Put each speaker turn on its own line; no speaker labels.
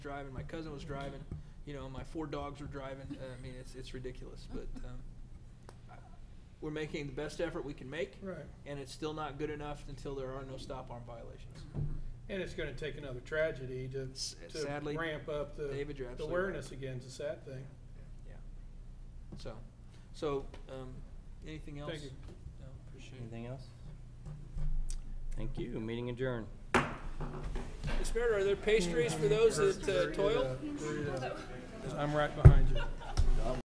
driving, my cousin was driving, you know, my four dogs were driving. Uh, I mean, it's, it's ridiculous, but, um, I- we're making the best effort we can make,
Right,
and it's still not good enough until there are no stop arm violations.
and it's gonna take another tragedy to,
S-
to
Sadly,
ramp up the
David, you're
the
absolutely right.
awareness again, is a sad thing.
So, so, um, anything else?
Thank you.
No, appreciate it.
Anything else? Thank you. Meeting adjourned.
Miss Meredith, are there pastries for those that uh, toil?
I'm right behind you.